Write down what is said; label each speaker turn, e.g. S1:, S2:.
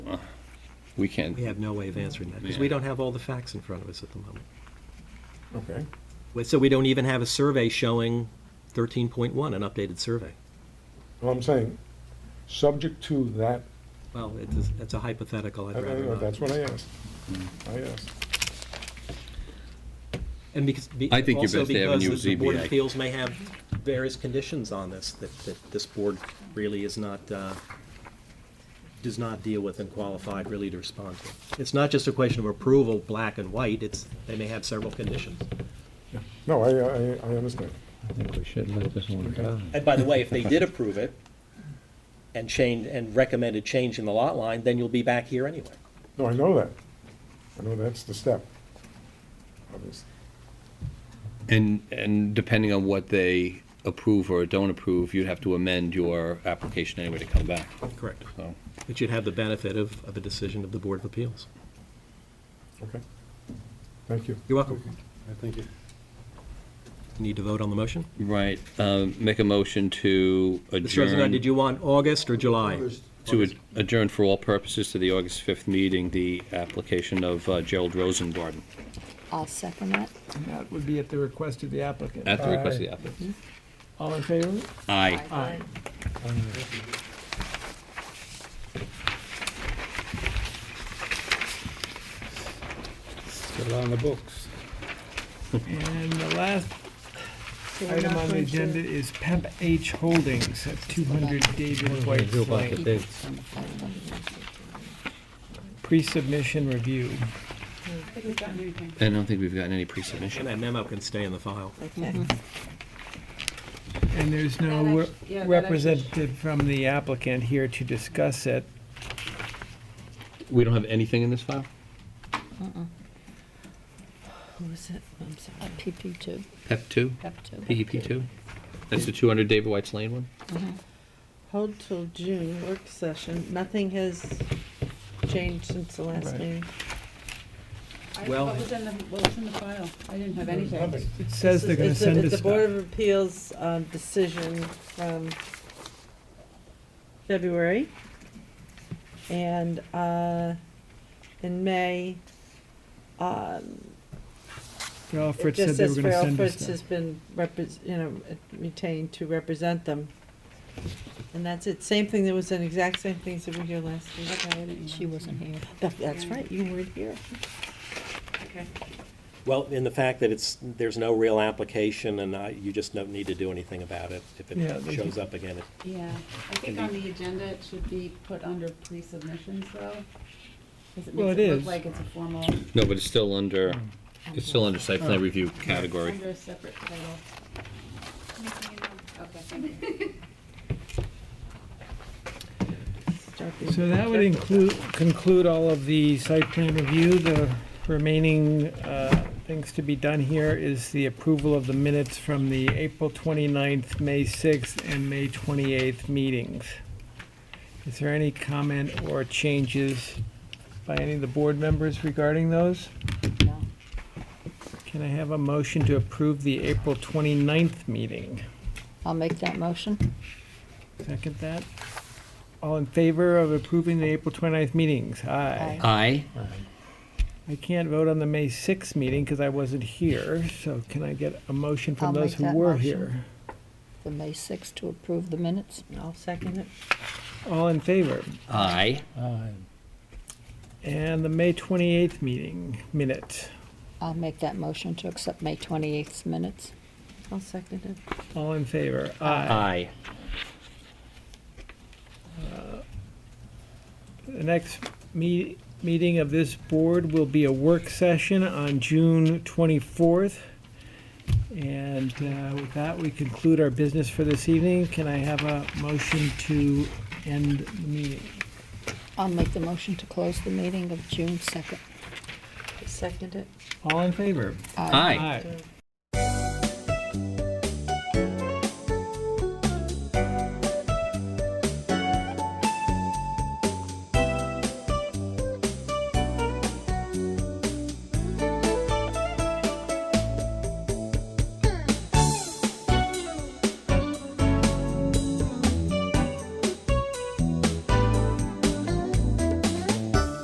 S1: uh, we can't,
S2: We have no way of answering that, because we don't have all the facts in front of us at the moment.
S3: Okay.
S2: Well, So we don't even have a survey showing 13.1, an updated survey.
S3: Well, I'm saying, subject to that,
S2: Well, it's, that's a hypothetical, I'd
S3: I
S2: rather
S3: don't know,
S2: not.
S3: that's what I asked. I asked.
S2: And because, be-
S1: I think your
S2: also
S1: best avenue
S2: because
S1: is
S2: the Board of
S1: ZBA.
S2: Appeals may have various conditions on this, that, that this board really is not, uh, does not deal with and qualified really to respond to. It's not just a question of approval, black and white, it's, they may have several conditions.
S3: No, I, I, I understand.
S4: I think we should let this one go.
S2: And by the way, if they did approve it and change, and recommended change in the lot line, then you'll be back here anyway.
S3: No, I know that. I know that's the step. Obvious.
S1: and, and depending on what they approve or don't approve, you'd have to amend your application anyway to come back,
S2: Correct.
S1: so.
S2: But you'd have the benefit of, of a decision of the Board of Appeals.
S3: Okay. Thank you.
S2: You're welcome.
S3: Thank you.
S2: Need to vote on the motion?
S1: Right, um, make a motion to
S2: Mr. Rosenbaum, did
S1: adjourn,
S2: you want August or July?
S1: to ad- adjourn for all purposes to the August 5th meeting, the application of uh, Gerald Rosengarten,
S5: I'll second that.
S6: And that would be at the request of the applicant.
S1: at the request of the applicant.
S6: All in favor?
S1: Aye.
S6: Aye.
S4: Still on the books.
S6: And the last
S5: So we're
S6: item
S5: not
S6: on the
S5: going to-
S6: agenda is Pemp H Holdings at 200 David
S4: What do
S6: White
S4: you do about the
S6: Lane.
S4: dates?
S6: Pre-submission review.
S1: I don't think we've gotten any pre-submission.
S2: And that memo can stay in the file.
S5: Okay.
S6: And there's
S7: That
S6: no
S7: actu- yeah, that
S6: re-
S7: actu-
S6: representative from the applicant here to discuss it.
S1: We don't have anything in this file?
S5: Who was it? I'm sorry. PP Uh, two.
S1: PEP 2?
S5: PEP two.
S1: PEP 2? E That's the 200 David White's Lane one?
S8: Hold till June, work session, nothing has changed since the last
S6: Right.
S8: meeting.
S7: I-
S2: Well-
S7: What was in the, what was in the file? I didn't have anything.
S6: It says they're gonna
S8: It's a-
S6: send us
S8: It's a Board
S6: stuff.
S8: of Appeals um, decision from February. And uh, in May, um,
S6: Ralph
S8: it
S6: Fritz said
S8: just
S6: they were
S8: says
S6: gonna
S8: Farrell
S6: send us
S8: Fritz has
S6: stuff.
S8: been, repres- you know, retained to represent them. And that's it, same thing, that was an exact same things that were here last week.
S7: Okay, I didn't
S5: She wasn't here.
S8: That- That's right, you weren't here.
S7: Okay.
S2: Well, in the fact that it's, there's no real application and I, you just don't need to do anything about it. If
S6: Yeah,
S2: it
S6: they
S2: shows
S6: can-
S2: up again, it
S7: Yeah, I think on the agenda, it should be put under pre-submissions though. 'cause
S6: Well,
S7: makes
S6: it
S7: look
S6: is.
S7: Like it's a formal,
S1: No, but it's still under, it's still under site plan review category.
S7: under a separate title. Okay, thank you.
S8: Start being
S6: So that would
S8: careful.
S6: include, conclude all of the site plan review. The remaining uh, things to be done here is the approval of the minutes from the April 29th, May 6th, and May 28th meetings. Is there any comment or changes by any of the board members regarding those?
S5: No.
S6: Can I have a motion to approve the April 29th meeting?
S5: I'll make that motion.
S6: Second that? All in favor of approving the April 29th meetings? Aye.
S5: Aye.
S1: Aye.
S6: I can't vote on the May 6th meeting because I wasn't here, so can I get a motion
S5: I'll
S6: from those
S5: make
S6: who
S5: that
S6: were
S5: motion.
S6: here?
S5: The May sixth to approve the minutes.
S8: I'll second it.
S6: All in favor?
S1: Aye.
S4: Aye.
S6: And the May 28th meeting minute,
S5: I'll make that motion to accept May twenty-eighth's minutes.
S8: I'll second it.
S6: all in favor?
S1: Aye.
S6: Aye. The next me- meeting of this board will be a work session on June 24th. And uh, with that, we conclude our business for this evening. Can I have a motion to end the meeting?
S5: I'll make the motion to close the meeting of June second.
S8: Second it.
S6: All in favor?
S1: Aye.
S6: Aye.